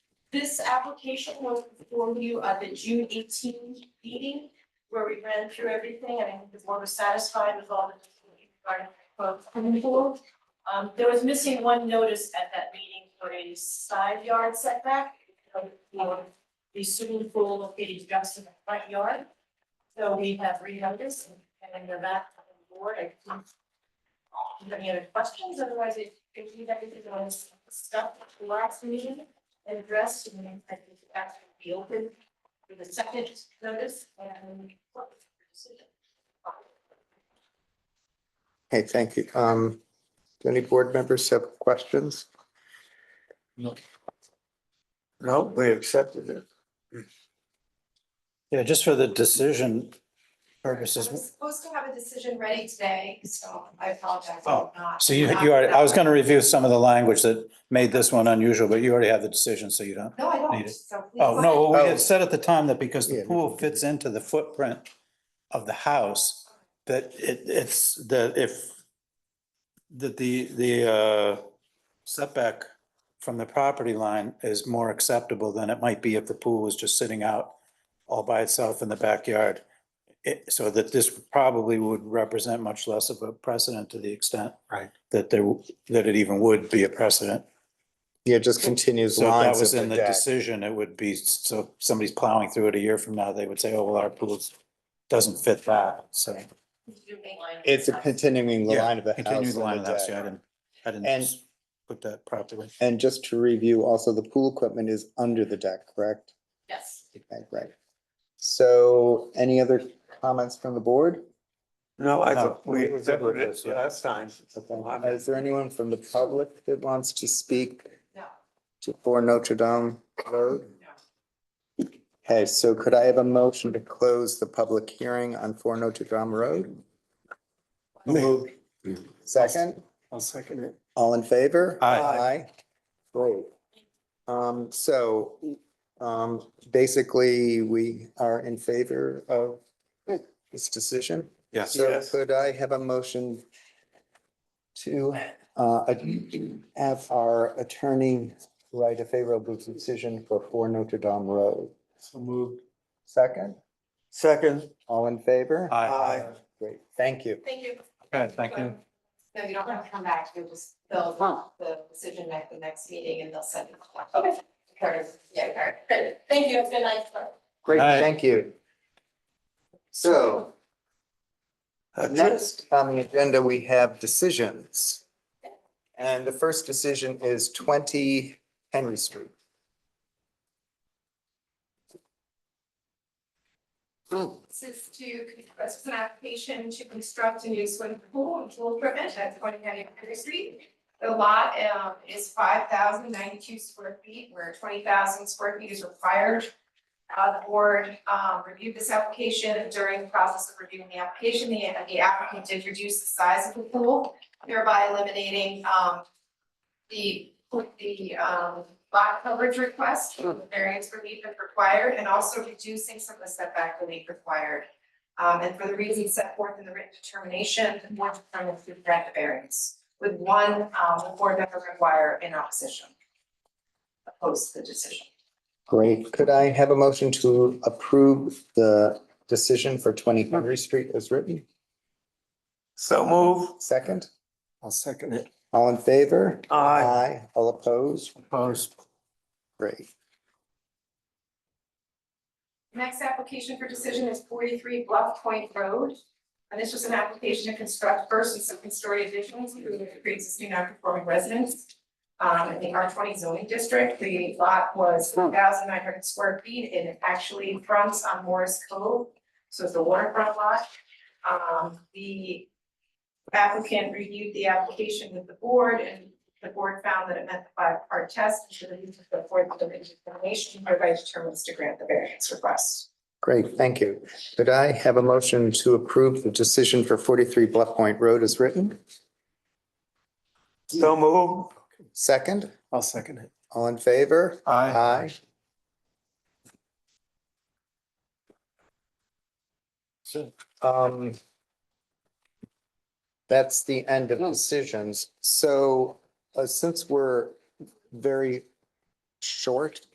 This application was before you at the June eighteen meeting where we ran through everything and I think the board was satisfied with all the regarding swimming pool. Um, there was missing one notice at that meeting for a side yard setback um, for the swimming pool located just in the front yard. So we have renoticed and then they're back on the board. I think- Do you have any other questions? Otherwise, it could be that everything was stuff at the last meeting and addressed and then I think the action will be open for the second notice and. Okay, thank you. Um, do any board members have questions? No. No, we accepted it. Yeah, just for the decision purposes. supposed to have a decision ready today, so I apologize. Oh, So you, you are, I was gonna review some of the language that made this one unusual, but you already have the decision, so you don't. No, I Need don't, it. so. please Oh, go no, ahead. well, we had said at the time that because Yeah, the we pool can- fits into the footprint of the house, that it, it's, that if, that the, the uh, setback from the property line is more acceptable than it might be if the pool was just sitting out all by itself in the backyard. It, so that this probably would represent much less of a precedent to the extent. Right. That there, that it even would be a precedent. Yeah, it just continues So if that lines was of in the the deck. decision, it would be, so if somebody's plowing through it a year from now, they would say, oh, well, our pools doesn't fit that, so. It's a continuing the Yeah, line of the house. Continuing the and line of the house, deck. yeah, I didn't, I didn't And- put that properly. And just to review, also the pool equipment is under the deck, correct? Yes. Right, Right. So any other comments from the board? No, I No, thought we- we we're good accepted with this, it yeah. last time. Okay. Is there anyone from the public that wants to speak No. to- for Notre Dame Road? Okay, so could I have a motion to close the public hearing on Four Notre Dame Road? Second, I'll second it. all in favor? Aye. Great. Um, so, um, basically, we are in favor of this decision. Yes. So Yes. could I have a motion to uh, ad- have our attorney write a favorable decision for Four Notre Dame Road? So moved. Second, Second. all in favor? Aye. Great, thank you. Thank you. Okay, thank you. No, you don't have to come back, you'll just, they'll want the decision at the next meeting and they'll send it. Okay. Curtis, yeah, Curtis. Great. Thank you. Have a good night. Great, Aye. thank you. So next on the agenda, we have decisions. And the first decision is twenty Henry Street. This is to, this is an application to construct a new swimming pool and pool equipment at twenty ninety Henry Street. The lot um, is five thousand ninety-two square feet, where twenty thousand square feet is required. Uh, the board um, reviewed this application during the process of reviewing the application, the the applicant did reduce the size of the pool, thereby eliminating um, the, the um, lot coverage request, the variance relief if required, and also reducing some of the setback relief required. Um, and for the reasons set forth in the written determination, the board determined to grant the variance with one, um, board member require in opposition. Oppose the decision. Great. Could I have a motion to approve the decision for twenty Henry Street as written? So move. Second, I'll second it. all in favor? Aye. All opposed? Opposed. Great. Next application for decision is forty-three Bluff Point Road. And this was an application to construct first and second story additions to the pre-existing non-conforming residence. Um, in the R twenty zoning district, the lot was one thousand nine hundred square feet and it actually fronts on Morris Cove. So it's a waterfront lot. Um, the applicant reviewed the application with the board and the board found that it met the five-part test, and should have used the fourth dimension determination, hereby determines to grant the variance request. Great, thank you. Could I have a motion to approve the decision for forty-three Bluff Point Road as written? So move. Second, I'll second it. all in favor? Aye. Aye. Um, that's the end of decisions. So, uh, since we're very short